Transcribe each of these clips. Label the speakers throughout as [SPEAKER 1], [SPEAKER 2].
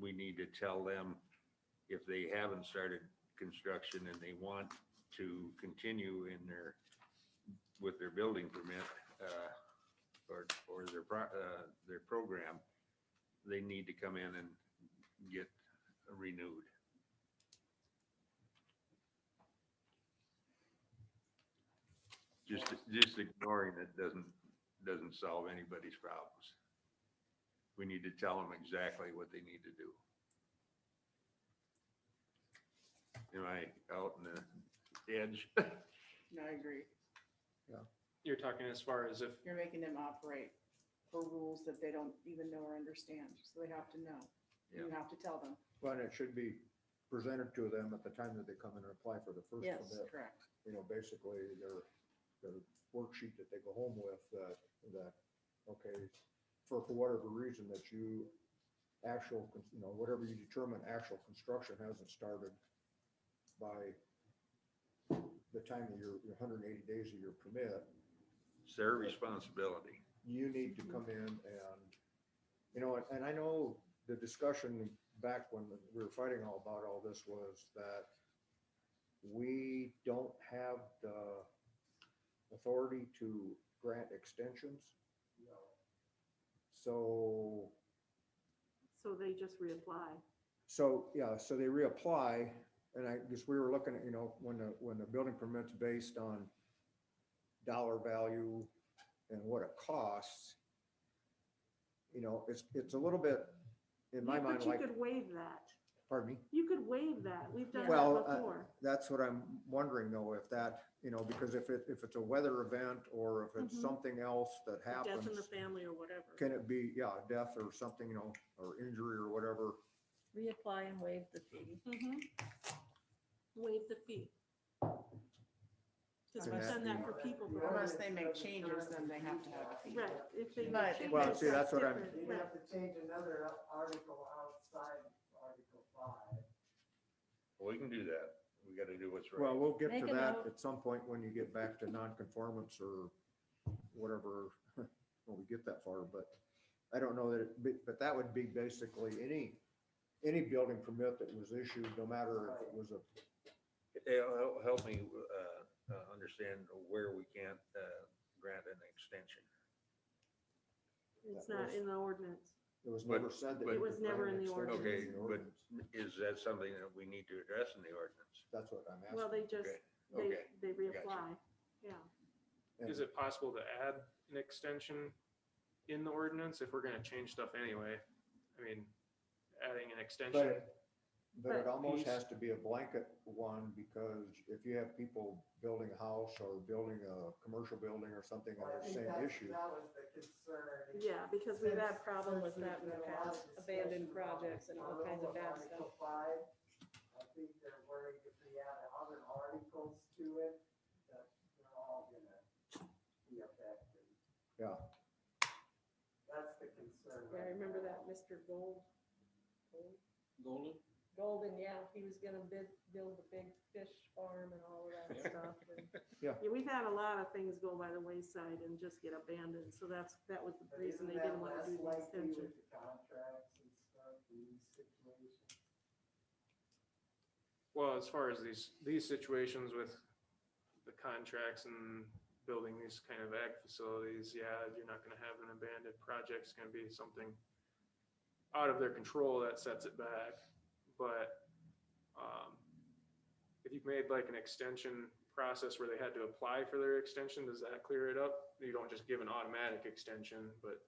[SPEAKER 1] we need to tell them if they haven't started construction and they want to continue in their, with their building permit, uh, or, or their, pro- uh, their program, they need to come in and get renewed. Just, just ignoring it doesn't, doesn't solve anybody's problems. We need to tell them exactly what they need to do. Am I out in the edge?
[SPEAKER 2] No, I agree.
[SPEAKER 3] You're talking as far as if,
[SPEAKER 2] You're making them operate for rules that they don't even know or understand, so they have to know. You have to tell them.
[SPEAKER 4] But it should be presented to them at the time that they come in and apply for the first permit.
[SPEAKER 2] Correct.
[SPEAKER 4] You know, basically their, their worksheet that they go home with, that, that, okay, for, for whatever reason that you actual, con- you know, whatever you determine, actual construction hasn't started by the time of your, your hundred and eighty days of your permit,
[SPEAKER 1] It's their responsibility.
[SPEAKER 4] you need to come in and, you know, and- and I know the discussion back when we were fighting all about all this was that we don't have the authority to grant extensions. So,
[SPEAKER 5] So they just reapply.
[SPEAKER 4] so, yeah, so they reapply, and I guess we were looking at, you know, when the, when the building permit's based on dollar value and what it costs, you know, it's, it's a little bit, in my
[SPEAKER 5] Yeah,
[SPEAKER 4] mind,
[SPEAKER 5] But you
[SPEAKER 4] like,
[SPEAKER 5] could waive that.
[SPEAKER 4] pardon me?
[SPEAKER 5] You could waive that. We've done
[SPEAKER 4] Well,
[SPEAKER 5] that
[SPEAKER 4] uh,
[SPEAKER 5] before.
[SPEAKER 4] That's what I'm wondering though, if that, you know, because if it, if it's a weather event or if it's
[SPEAKER 5] Mhm.
[SPEAKER 4] something else that
[SPEAKER 5] Death in
[SPEAKER 4] happens,
[SPEAKER 5] the family or whatever.
[SPEAKER 4] can it be, yeah, death or something, you know, or injury or whatever,
[SPEAKER 6] reapply and waive the fee.
[SPEAKER 5] Mhm. Waive the fee. Because we've
[SPEAKER 4] Unless
[SPEAKER 5] done that for people. before.
[SPEAKER 2] Unless they make changes, then they have to have a fee.
[SPEAKER 5] Right, if they.
[SPEAKER 7] But-
[SPEAKER 5] change
[SPEAKER 4] Well,
[SPEAKER 5] it,
[SPEAKER 4] see, that's what I'm-
[SPEAKER 5] different.
[SPEAKER 7] You'd
[SPEAKER 5] Right.
[SPEAKER 7] have to change another article outside Article five.
[SPEAKER 1] We can do that. We gotta do what's
[SPEAKER 4] Well,
[SPEAKER 1] right.
[SPEAKER 4] we'll get
[SPEAKER 6] Make
[SPEAKER 4] to
[SPEAKER 6] a
[SPEAKER 4] that
[SPEAKER 6] note.
[SPEAKER 4] at some point when you get back to non-conformance or whatever, when we get that far, but I don't know that, it- but, but that would be basically any, any building permit that was issued, no matter if it was a,
[SPEAKER 1] It'll help- help me, uh, uh, understand where we can't, uh, grant an extension.
[SPEAKER 5] It's not in the ordinance.
[SPEAKER 4] it was
[SPEAKER 1] But-
[SPEAKER 4] never said that.
[SPEAKER 1] but-
[SPEAKER 4] you
[SPEAKER 1] It
[SPEAKER 5] was
[SPEAKER 4] could grant
[SPEAKER 5] never in the
[SPEAKER 4] extensions
[SPEAKER 1] ordinance.
[SPEAKER 4] in the
[SPEAKER 1] Okay, but-
[SPEAKER 4] ordinance.
[SPEAKER 1] Is that something that we need to address in the ordinance?
[SPEAKER 4] That's what I'm
[SPEAKER 5] Well,
[SPEAKER 4] asking.
[SPEAKER 5] they just,
[SPEAKER 1] Okay,
[SPEAKER 5] they,
[SPEAKER 1] okay,
[SPEAKER 5] they reapply. Yeah.
[SPEAKER 4] And-
[SPEAKER 3] is it possible to add an extension in the ordinance if we're gonna change stuff anyway? I mean, adding an
[SPEAKER 4] But,
[SPEAKER 3] extension,
[SPEAKER 4] it- but it
[SPEAKER 5] But
[SPEAKER 4] almost
[SPEAKER 3] these-
[SPEAKER 4] has to be a blanket one, because if you have people building a house or building a commercial building or something on
[SPEAKER 7] I
[SPEAKER 4] the
[SPEAKER 7] think
[SPEAKER 4] same
[SPEAKER 7] that-
[SPEAKER 4] issue.
[SPEAKER 7] That was the concern.
[SPEAKER 5] Yeah, because we've
[SPEAKER 7] Since-
[SPEAKER 5] had problem with
[SPEAKER 7] since
[SPEAKER 5] that in
[SPEAKER 7] there's
[SPEAKER 5] the
[SPEAKER 7] been a lot of
[SPEAKER 5] past, abandoned
[SPEAKER 7] discussion about
[SPEAKER 5] projects and all kinds of bad stuff.
[SPEAKER 7] Article five, I think they're worried if they add other articles to it, that they're all gonna be affected.
[SPEAKER 4] Yeah.
[SPEAKER 7] That's the concern.
[SPEAKER 5] Yeah, I
[SPEAKER 7] right
[SPEAKER 5] remember
[SPEAKER 7] now.
[SPEAKER 5] that Mr. Gold, Gold-
[SPEAKER 8] Golden?
[SPEAKER 6] Golden, yeah, he was gonna bid, build the big fish farm and all of that stuff. and-
[SPEAKER 5] Yeah, we've had a lot of things go by the wayside and just get abandoned, so that's, that was the
[SPEAKER 7] But
[SPEAKER 5] reason
[SPEAKER 7] isn't
[SPEAKER 5] they
[SPEAKER 7] that
[SPEAKER 5] didn't wanna
[SPEAKER 7] less
[SPEAKER 5] do the
[SPEAKER 7] likely
[SPEAKER 5] extension.
[SPEAKER 7] with the Contracts and stuff, in these situations.
[SPEAKER 3] well, as far as these, these situations with the contracts and building these kind of ag facilities, yeah, you're not gonna have an abandoned project. It's gonna be something out of their control that sets it back, but, um, if you've made like an extension process where they had to apply for their extension, does that clear it up? You don't just give an automatic extension, but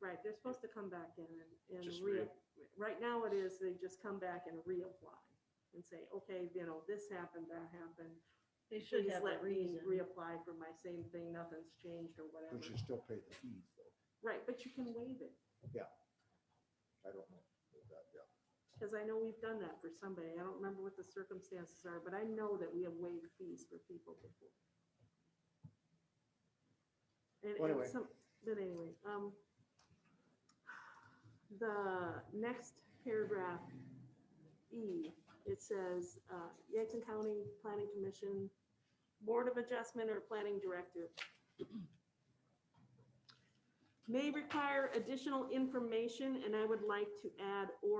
[SPEAKER 5] Right, they're supposed to come back in and, and
[SPEAKER 3] Just
[SPEAKER 5] re,
[SPEAKER 3] re-
[SPEAKER 5] right now it is, they just come back and reapply and say, okay, you know, this happened, that happened.
[SPEAKER 6] They should
[SPEAKER 5] Please
[SPEAKER 6] have a
[SPEAKER 5] let me
[SPEAKER 6] reason.
[SPEAKER 5] reapply for my same thing, nothing's changed or
[SPEAKER 4] We
[SPEAKER 5] whatever.
[SPEAKER 4] should still pay the fees though.
[SPEAKER 5] Right, but you can waive it,
[SPEAKER 4] I don't know. about that, yeah.
[SPEAKER 5] because I know we've done that for somebody. I don't remember what the circumstances are, but I know that we have waived fees for people before. And,
[SPEAKER 4] Well,
[SPEAKER 5] and
[SPEAKER 4] anyway.
[SPEAKER 5] some, but anyway, um, the next paragraph, E, it says, uh, Yankton County Planning Commission, Board of Adjustment or Planning Director may require additional information, and I would like to add or